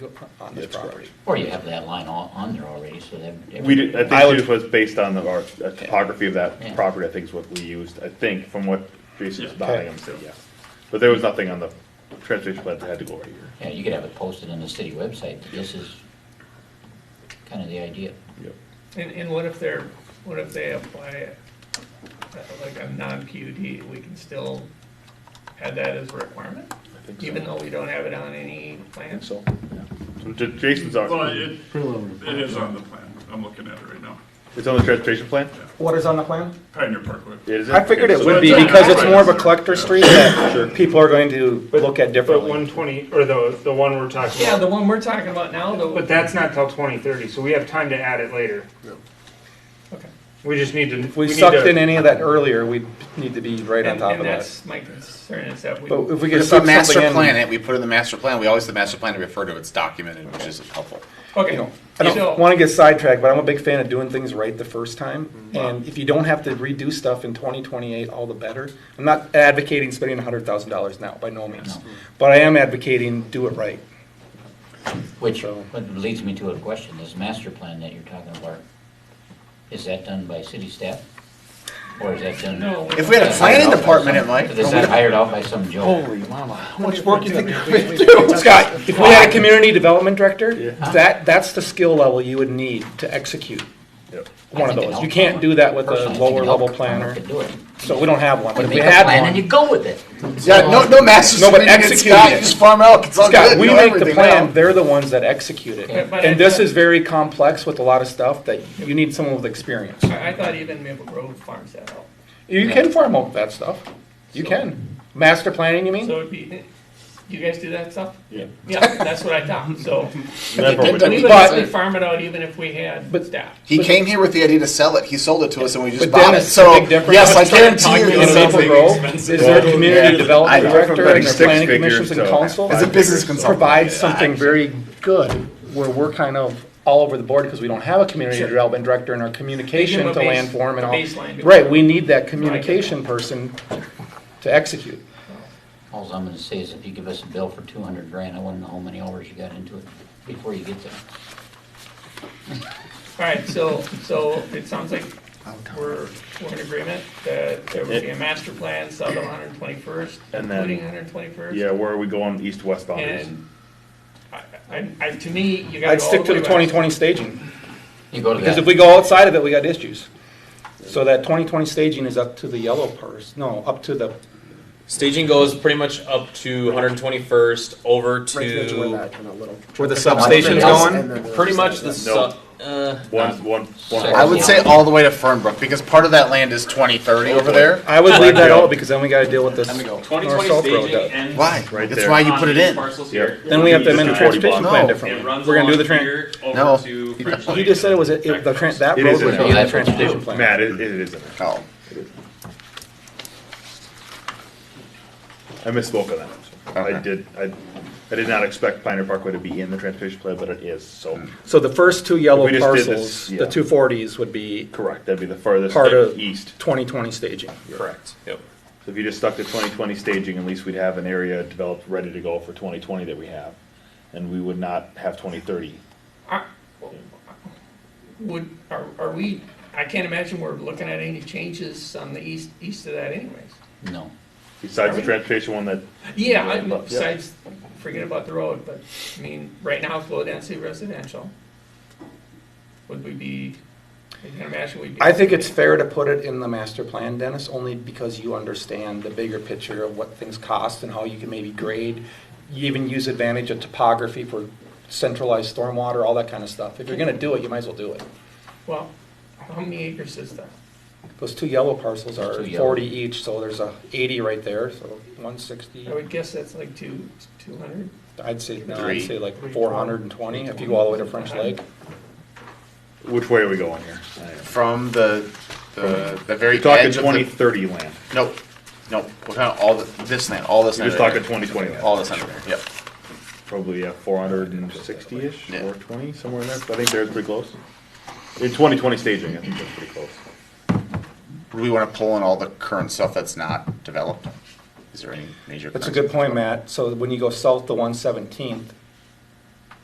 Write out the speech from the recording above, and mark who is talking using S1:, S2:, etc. S1: on this
S2: That's correct.
S1: property.
S3: Or you have that line on, on there already, so that.
S4: We did, I
S2: I would-
S4: think it was based on the, our, the topography of
S3: Yeah.
S4: that property, I think is what we used, I think, from what Jason's
S5: Yeah.
S4: nodding, I'm saying, yeah. But there was nothing on the transportation plan that had to go over here.
S3: Yeah, you could have it posted on the city website, that this is kind of the idea.
S4: Yep.
S5: And, and what if they're, what if they apply uh, like a non-PUD, we can still add that as a requirement? Even though we don't have it on any
S2: I think
S5: plans?
S2: so.
S4: So J- Jason's,
S6: Well,
S4: on-
S6: it, it is on the plan, I'm looking at it right now,
S4: it's on the transportation plan?
S1: What is on the plan?
S6: Pioneer Parkway.
S4: It is in-
S1: I figured it
S4: so
S1: would
S4: that's
S1: be
S4: on-
S1: because it's more of a collector street that people are going to
S7: But-
S1: look at
S7: But
S1: differently.
S7: one twenty, or the, the one we're talking
S5: Yeah, the
S7: about,
S5: one we're talking about now,
S7: but
S5: though,
S7: that's not till twenty thirty, so we have time to add it later.
S5: okay.
S7: We just need to.
S1: If we
S7: need
S1: sucked
S7: to-
S1: in any of that earlier, we'd need to be right on
S5: And,
S1: top
S5: and
S1: of that.
S5: that's my concern is that we,
S1: But if we
S8: But
S1: could
S8: If we
S1: suck
S8: master
S1: something in.
S8: plan it, we put it in the master plan, we always, the master plan to refer to, it's documented, which is helpful.
S1: you
S5: okay,
S1: know, I don't
S5: so,
S1: want to get sidetracked, but I'm a big fan of doing things right the first time. And if you don't have to redo stuff in 2028, all the better. I'm not advocating spending $100,000 now, by no means. But I am advocating do it right.
S3: Which
S1: So-
S3: what leads me to a question, this master plan that you're talking about, is that done by city staff? Or is that done?
S5: No.
S8: If we had a planning department, it might.
S3: Is that hired out by some Joe?
S1: mama, how much work you think you're going to do? Scott, if we had a community development director, that, that's the skill level you would need to execute
S4: Yep.
S1: one
S3: I
S1: of
S3: think it
S1: those. You
S3: helps.
S1: can't do that with a
S3: Personally, I think it
S1: lower level
S3: helps. I don't know
S1: planner.
S3: if it do it.
S1: So we don't have one, but
S3: You
S1: if we
S3: make a
S1: had
S3: plan And you
S1: one.
S3: go with it.
S8: Yeah, no, no master's.
S1: No, but
S8: plan, it's
S1: execute
S8: Scott,
S1: it.
S8: Just farm out, it's all good.
S1: Scott,
S8: you
S1: we
S8: know
S1: make the
S8: everything
S1: plan,
S8: now.
S1: they're the ones that execute it.
S5: Yeah, but
S1: And
S5: I-
S1: this is very complex with a lot of stuff that you need someone with experience.
S5: I I thought even Maple Grove farms that out.
S1: You can farm out that stuff. You can. Master planning, you mean?
S5: So it'd be, you guys do that stuff?
S4: Yeah.
S5: Yeah, that's what I thought, so,
S4: That part we
S8: But-
S4: did.
S5: we would
S1: But-
S5: actually farm it out even if we had
S1: But-
S5: staff.
S8: He came here with the idea to sell it, he sold it to us and we
S1: But
S8: just
S1: then
S8: bought it,
S1: it's a
S8: so,
S1: big difference.
S8: yes, I
S1: Let's
S8: guarantee you.
S1: In
S8: it's
S1: Maple
S8: something.
S1: Grove, is there a community development
S8: I-
S1: director and their
S4: Six
S1: planning
S4: figures
S1: commissions and
S4: to
S1: council?
S8: As a business consultant.
S1: Provides something very good where we're kind of all over the board because we don't have a community
S5: Sure.
S1: development director in our communication
S5: They
S1: to
S5: give 'em a base-
S1: landform and
S5: a
S1: all.
S5: baseline.
S1: Right, we need that communication person to execute.
S3: Alls I'm gonna say is if you give us a bill for two hundred grand, I wanna know how many hours you got into it before you get there.
S5: All right, so, so it sounds like we're, we're in agreement that there would be a master plan south of 121st,
S4: And then-
S5: including 121st.
S4: Yeah, where are we going, east, west boundaries?
S5: And I, I, I, to me, you got
S1: I'd
S5: to
S1: stick to the 2020 staging.
S3: You go to
S1: Because if
S3: that,
S1: we go outside of it, we got issues. So that 2020 staging is up to the yellow purse, no, up to the,
S9: Staging goes pretty much up to 121st, over to
S1: where the substation's
S3: substation's going?
S1: going?
S9: pretty much the
S4: No.
S9: su- uh,
S4: One, one, one.
S3: Second.
S8: I would say all the way to Fernbrook, because part of that land is twenty thirty over there.
S1: I would leave that
S4: Blackjack.
S1: out because then we gotta deal with this
S8: Let me go.
S1: north south
S10: 2020
S1: road.
S10: staging
S1: that-
S10: ends.
S8: Why?
S4: Right
S8: That's
S4: there.
S8: why you put it
S10: these
S8: in.
S10: Parcels
S4: Yeah.
S10: here.
S1: Then we have to
S4: Just
S1: amend the
S4: the 40
S1: transportation
S4: block.
S1: plan
S8: No.
S10: It
S1: differently.
S10: runs
S1: We're gonna do
S10: along
S1: the tran,
S10: here
S8: No.
S10: over to French
S1: he
S10: Lake.
S1: just said it was, it- it- the tran, that
S4: It
S1: road
S4: is in
S1: was
S4: there.
S1: in the
S3: Yeah.
S1: transportation plan.
S4: Matt, it, it is in there.
S8: Oh.
S4: I misspoke on that. I
S8: Okay.
S4: did, I, I did not expect Pioneer Parkway to be in the transportation plan, but it is, so,
S1: So the first two yellow
S4: If we just did
S1: parcels,
S4: this,
S1: the
S4: yeah.
S1: 240s would be
S4: correct, that'd be the farthest
S1: part of
S4: east.
S1: 2020 staging.
S4: Correct.
S9: yep.
S4: So if you just stuck to twenty twenty staging, at least we'd have an area developed, ready to go for twenty twenty that we have. And we would not have twenty thirty.
S5: Would, are, are we, I can't imagine we're looking at any changes on the east, east of that anyways.
S3: no.
S4: Besides the transportation one that,
S5: Yeah, I-
S4: Yeah.
S5: besides, forget about the road, but, I mean, right now, it's low density residential. Would we be, I can imagine we'd be.
S1: I think it's fair to put it in the master plan, Dennis, only because you understand the bigger picture of what things cost and how you can maybe grade. You even use advantage of topography for centralized stormwater, all that kind of stuff. If you're gonna do it, you might as well do it.
S5: Well, how many acres is that?
S1: Those two yellow parcels are
S3: Two yellow.
S1: forty each, so there's a eighty right there, so one sixty.
S5: I would guess that's like two, two hundred?
S1: I'd say, no,
S8: Three.
S1: I'd say like four hundred and twenty, if you go all the way to French Lake.
S4: which way are we going here? I am-
S8: From the, the, the very
S4: We're talking
S8: edge of
S4: twenty
S8: the,
S4: thirty land.
S8: nope, nope, we're talking all the, this land, all this
S4: We're
S8: land.
S4: just
S8: right
S4: talking
S8: here.
S4: twenty twenty land.
S8: All this under there, yep.
S4: probably yeah, 460-ish,
S8: Yeah.
S4: 420, somewhere in there. So I think they're pretty close. In 2020 staging, I think that's pretty close.
S8: Would we want to pull in all the current stuff that's not developed? Is there any major?
S1: That's a
S8: current
S1: good point, Matt. So when you go south to one seventeenth,